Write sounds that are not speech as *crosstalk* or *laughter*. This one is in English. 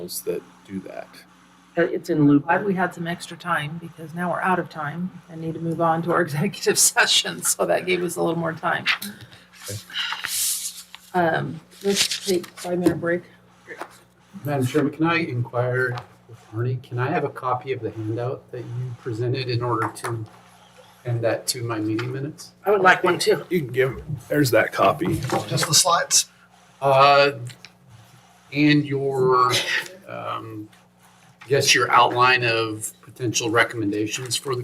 those that do that. Uh, It's in loop. Glad we had some extra time because now we're out of time and need to move on to our *laughs* executive session. So that gave us a little more time. Um, Let's take five minute break. Madam Chairman, can I inquire with Arnie, can I have a copy of the handout that you presented in order to end that to my meeting minutes? I would like one too. You can give, there's that copy. Just the slides? Uh, and your, um, yes, your outline of potential recommendations for the